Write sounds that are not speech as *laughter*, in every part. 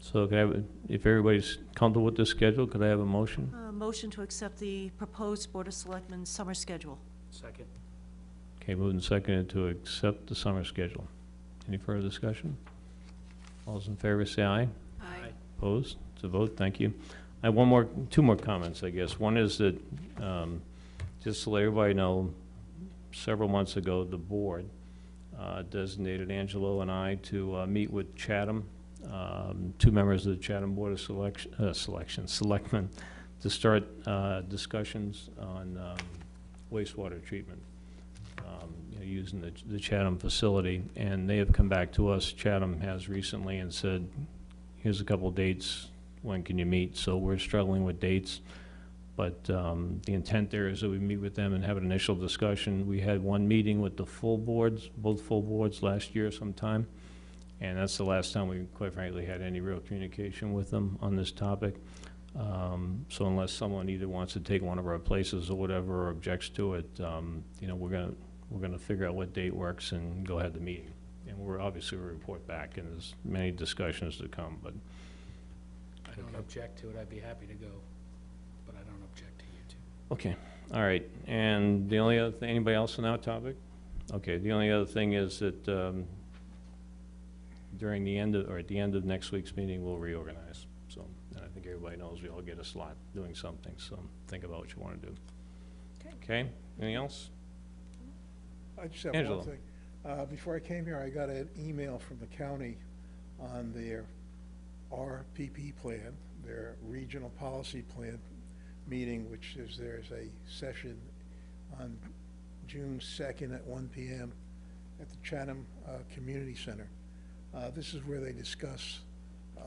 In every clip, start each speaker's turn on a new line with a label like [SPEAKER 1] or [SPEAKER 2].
[SPEAKER 1] So can I, have a- if everybody's comfortable with this schedule, could I have a motion?
[SPEAKER 2] Uh, Motion to accept the proposed Board of Selectmen's summer schedule.
[SPEAKER 3] Second.
[SPEAKER 1] Okay, moved and seconded to accept the summer schedule. Any further discussion? All those in favor say aye.
[SPEAKER 3] Aye.
[SPEAKER 1] Opposed? It's a vote, thank you. I have one more, two more comments, I guess. One is that, um, just to let everybody know, several months ago, the board uh, designated Angelo and I to uh, meet with Chatham, um, two members of the Chatham Board of Selection, uh, Selection, Selectmen, to start uh, discussions on um, wastewater treatment, um, you know, using the the Chatham facility. And they have come back to us, Chatham has recently, and said, here's a couple of dates, when can you meet? So we're struggling with dates, but um, the intent there is that we meet with them and have an initial discussion. We had one meeting with the full boards, both full boards last year sometime, and that's the last time we, quite frankly, had any real communication with them on this topic. Um, So unless someone either wants to take one of our places or whatever, or objects to it, um, you know, we're gonna, we're gonna figure out what date works and go ahead to meeting. And we're obviously, we'll report back, and there's many discussions to come, but
[SPEAKER 3] I don't object to it, I'd be happy to go, but I don't object to you two.
[SPEAKER 1] Okay, all right, and the only other thing, anybody else on that topic? Okay, the only other thing is that um, during the end of, or at the end of next week's meeting, we'll reorganize, so, and I think everybody knows we all get a slot doing something, so think about what you want to do. Okay, anything else?
[SPEAKER 4] I just have
[SPEAKER 1] Angelo.
[SPEAKER 4] one thing. Uh, Before I came here, I got an email from the county on their RPP plan, their Regional Policy Plan meeting, which is, there's a session on June 2nd at 1 PM at the Chatham uh, Community Center. Uh, This is where they discuss uh,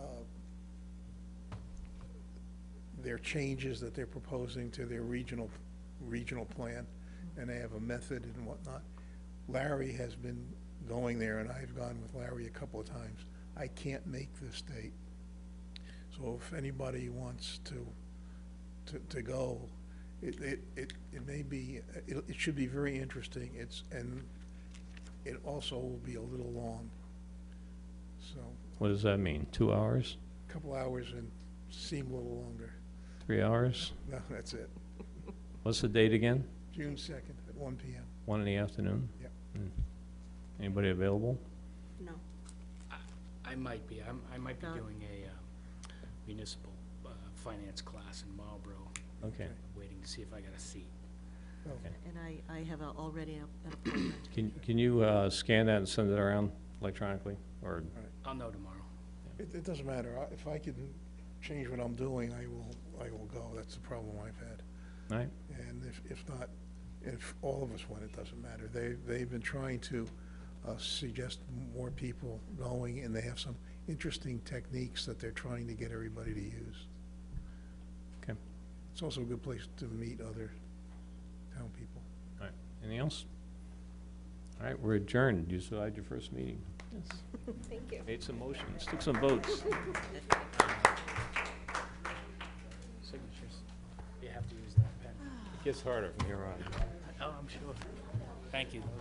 [SPEAKER 4] their changes that they're proposing to their regional, regional plan, and they have a method and whatnot. Larry has been going there, and I've gone with Larry a couple of times. I can't make this date. So if anybody wants to, to, to go, it, it, it it may be, it, it should be very interesting. It's, and it also will be a little long. So,
[SPEAKER 1] What does that mean, two hours,
[SPEAKER 4] a couple hours and seem a little longer. *laughs*
[SPEAKER 1] three hours?
[SPEAKER 4] No, that's it.
[SPEAKER 1] What's the date again?
[SPEAKER 4] June 2nd at 1 PM.
[SPEAKER 1] One in the afternoon?
[SPEAKER 4] Yep.
[SPEAKER 1] Hmm. Anybody available?
[SPEAKER 2] No.
[SPEAKER 3] I might be, I'm, I might be
[SPEAKER 2] Not-
[SPEAKER 3] doing a um, municipal uh, finance class in Marlboro,
[SPEAKER 1] Okay,
[SPEAKER 3] waiting to see if I got a seat.
[SPEAKER 4] Oh,
[SPEAKER 1] Okay.
[SPEAKER 2] And I, I have a- already a- an appointment.
[SPEAKER 1] can, can you uh, scan that and send it around electronically, or?
[SPEAKER 3] I'll know tomorrow.
[SPEAKER 4] It, it doesn't matter. I- If I can change what I'm doing, I will, I will go. That's the problem I've had.
[SPEAKER 1] All right,
[SPEAKER 4] And if, if not, if all of us went, it doesn't matter. They, they've been trying to uh, suggest more people going, and they have some interesting techniques that they're trying to get everybody to use.
[SPEAKER 1] Okay.
[SPEAKER 4] It's also a good place to meet other town people.
[SPEAKER 1] Anything else? All right, we're adjourned. You still had your first meeting.
[SPEAKER 5] *laughs* Thank you.
[SPEAKER 1] Made some motions, took some votes.
[SPEAKER 3] Signatures. You have to use that pen.
[SPEAKER 1] It gets harder from here on.
[SPEAKER 3] Oh, I'm sure. Thank you.